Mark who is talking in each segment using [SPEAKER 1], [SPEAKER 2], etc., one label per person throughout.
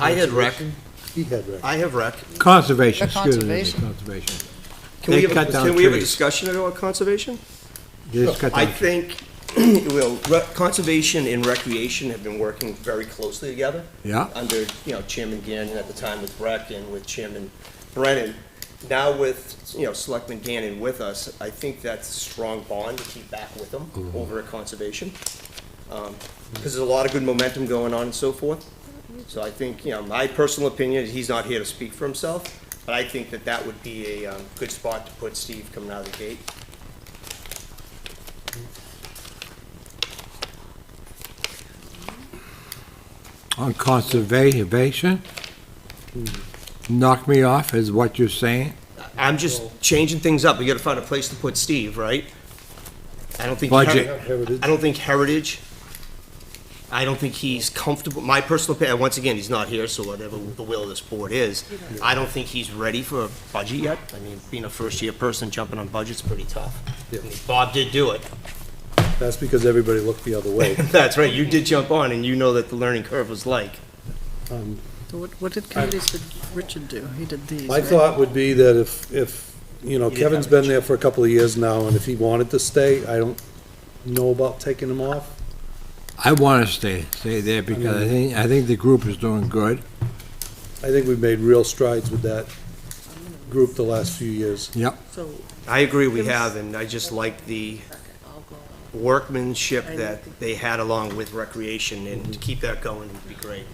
[SPEAKER 1] I had rec,
[SPEAKER 2] He had rec.
[SPEAKER 1] I have rec.
[SPEAKER 3] Conservation,
[SPEAKER 4] The
[SPEAKER 3] excuse me,
[SPEAKER 4] conservation.
[SPEAKER 3] conservation.
[SPEAKER 1] Can we
[SPEAKER 3] They
[SPEAKER 1] have,
[SPEAKER 3] cut
[SPEAKER 1] a-
[SPEAKER 3] down
[SPEAKER 1] can we have a
[SPEAKER 3] trees.
[SPEAKER 1] discussion about conservation?
[SPEAKER 3] They just cut
[SPEAKER 1] I
[SPEAKER 3] down-
[SPEAKER 1] think, well, re- conservation and recreation have been working very closely together.
[SPEAKER 3] Yeah.
[SPEAKER 1] Under, you know, Chairman Gannon at the time with Breck and with Chairman Brennan. Now with, you know, Selectman Gannon with us, I think that's a strong bond to keep back with them over at conservation. Because there's a lot of good momentum going on and so forth. So I think, you know, my personal opinion, he's not here to speak for himself, but I think that that would be a um, good spot to put Steve coming out of the gate.
[SPEAKER 3] on conservation, knock me off is what you're saying?
[SPEAKER 1] I'm just changing things up. We gotta find a place to put Steve, right? I don't think.
[SPEAKER 3] Budget.
[SPEAKER 1] Heri-
[SPEAKER 2] Heritage.
[SPEAKER 1] I don't think Heritage. I don't think he's comfortable. My personal opinion, once again, he's not here, so whatever the will of this board is, I don't think he's ready for a budget yet. I mean, being a first-year person, jumping on budget's pretty tough. I mean, Bob did do it.
[SPEAKER 2] That's because everybody looked the other way.
[SPEAKER 1] That's right, you did jump on, and you know that the learning curve was like.
[SPEAKER 4] So What, what did committees did Richard do? He did these,
[SPEAKER 2] My
[SPEAKER 4] right?
[SPEAKER 2] thought would be that if, if, you know,
[SPEAKER 1] You didn't
[SPEAKER 2] Kevin's
[SPEAKER 1] have
[SPEAKER 2] been there for a couple of years now, and if he wanted to stay, I don't know about taking him off.
[SPEAKER 3] I want to stay, stay there because I think, I think the group is doing good.
[SPEAKER 2] I think we've made real strides with that group the last few years.
[SPEAKER 3] Yep.
[SPEAKER 4] So,
[SPEAKER 1] I agree we
[SPEAKER 4] It was-
[SPEAKER 1] have, and I just like the workmanship that they had along with recreation, and to keep that going would be great.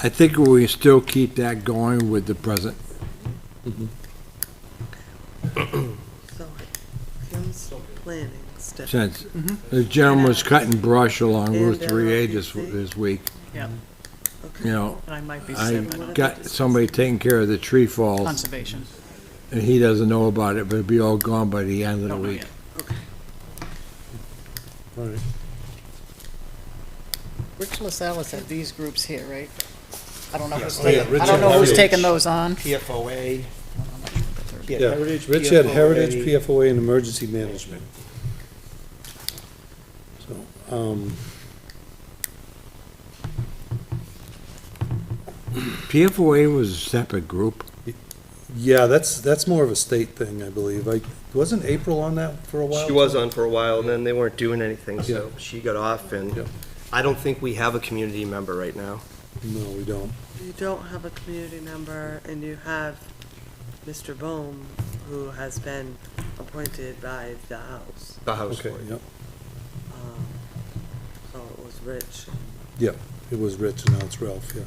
[SPEAKER 3] I think we still keep that going with the present.
[SPEAKER 4] so, Kim's planning stuff.
[SPEAKER 3] Since the gentleman was cutting brush along
[SPEAKER 4] Mm-hmm. And uh,
[SPEAKER 3] Route 3A this,
[SPEAKER 4] LRPC.
[SPEAKER 3] this week,
[SPEAKER 4] Yep.
[SPEAKER 3] you know,
[SPEAKER 4] And I might be
[SPEAKER 3] I
[SPEAKER 4] seven. don't know.
[SPEAKER 3] got somebody taking care of the tree falls,
[SPEAKER 4] Conservation.
[SPEAKER 3] and he doesn't know about it, but it'll be all gone by the end of the
[SPEAKER 4] Don't know
[SPEAKER 3] week.
[SPEAKER 4] yet.
[SPEAKER 2] All right.
[SPEAKER 4] Rich LaSalle's had these groups here, right? I don't know who's
[SPEAKER 1] Oh, yeah,
[SPEAKER 4] taking, I
[SPEAKER 2] Richard
[SPEAKER 4] don't know who's
[SPEAKER 2] Heritage.
[SPEAKER 4] taking those on.
[SPEAKER 1] PFOA. He had
[SPEAKER 2] Yeah,
[SPEAKER 1] Heritage,
[SPEAKER 2] Rich had
[SPEAKER 1] PFOA.
[SPEAKER 2] Heritage, PFOA, and Emergency Management. So, um,
[SPEAKER 3] PFOA was a separate group.
[SPEAKER 2] yeah, that's, that's more of a state thing, I believe. I, wasn't April on that for a while?
[SPEAKER 1] She was on for a while, and then they weren't doing anything, so she got off,
[SPEAKER 2] Yeah.
[SPEAKER 1] and I don't think we have a community member right now.
[SPEAKER 2] No, we don't.
[SPEAKER 5] You don't have a community member, and you have Mr. Bohm, who has been appointed by the House.
[SPEAKER 1] The House
[SPEAKER 2] Okay,
[SPEAKER 1] Board.
[SPEAKER 2] yep,
[SPEAKER 5] Um, So it was Rich.
[SPEAKER 2] yep. It was Rich and now it's Ralph, yeah.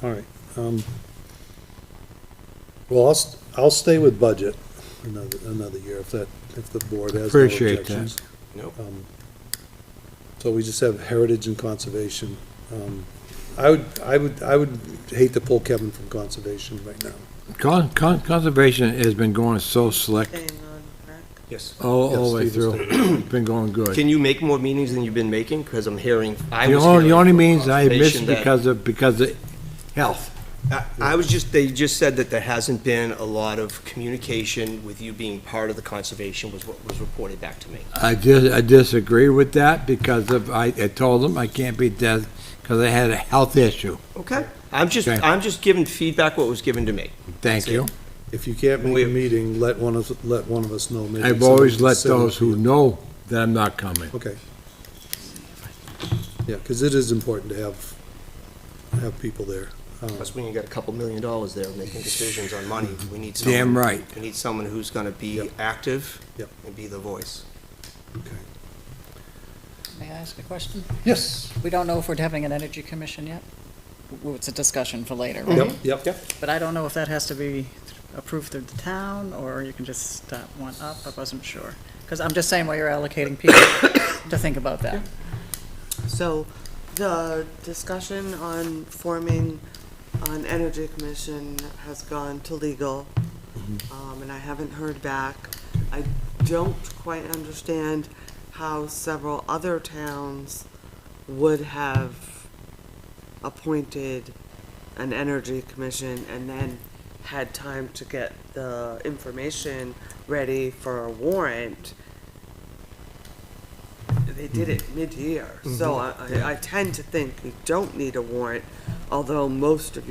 [SPEAKER 2] So, All right. um, Well, I'll, st- I'll stay with budget another, another year if that, if the board has no
[SPEAKER 3] Appreciate that.
[SPEAKER 2] objections.
[SPEAKER 1] Nope.
[SPEAKER 2] Um, So we just have heritage and conservation. Um, I would, I would, I would hate to pull Kevin from conservation right now.
[SPEAKER 3] Con- con- Conservation has been going so slick
[SPEAKER 5] Staying on rec.
[SPEAKER 1] Yes.
[SPEAKER 3] all, all the way
[SPEAKER 2] Yes, Steve
[SPEAKER 3] through. It's been going good.
[SPEAKER 1] Can you make more meetings than you've been making? Because I'm hearing, I
[SPEAKER 3] The
[SPEAKER 1] was
[SPEAKER 3] only,
[SPEAKER 1] hearing.
[SPEAKER 3] the only
[SPEAKER 1] from
[SPEAKER 3] means I missed
[SPEAKER 1] conservation that-
[SPEAKER 3] because of, because of health.
[SPEAKER 1] I- I was just, they just said that there hasn't been a lot of communication with you being part of the conservation was what was reported back to me.
[SPEAKER 3] I dis, I disagree with that because of, I, I told them I can't be dead because I had a health issue.
[SPEAKER 1] Okay. I'm just,
[SPEAKER 3] Okay.
[SPEAKER 1] I'm just giving feedback what was given to me.
[SPEAKER 3] Thank you.
[SPEAKER 2] If you can't make a
[SPEAKER 1] We-
[SPEAKER 2] meeting, let one of, let one of us know. maybe
[SPEAKER 3] I've
[SPEAKER 2] someone
[SPEAKER 3] always
[SPEAKER 2] can
[SPEAKER 3] let
[SPEAKER 2] sit in.
[SPEAKER 3] those who know that I'm not coming.
[SPEAKER 2] Okay. Yeah, because it is important to have, have people there. Um,
[SPEAKER 1] Plus, when you got a couple million dollars there making decisions on money, we need someone.
[SPEAKER 3] Damn right.
[SPEAKER 1] We need someone who's gonna be
[SPEAKER 2] Yep.
[SPEAKER 1] active.
[SPEAKER 2] Yep.
[SPEAKER 1] And be the voice.
[SPEAKER 2] okay.
[SPEAKER 4] May I ask a question?
[SPEAKER 2] Yes.
[SPEAKER 4] We don't know if we're having an energy commission yet. Well, It's a discussion for later, right?
[SPEAKER 2] Yep, yep, yep.
[SPEAKER 4] But I don't know if that has to be approved through the town, or you can just stop one up, I wasn't sure. Because I'm just saying, while you're allocating people, to think about that.
[SPEAKER 5] So the discussion on forming an energy commission has gone to legal, um, and I haven't heard back. I don't quite understand how several other towns would have appointed an energy commission and then had time to get the information ready for a warrant. They did it mid-year, so I, I- I tend to think we don't need a warrant, although most of you.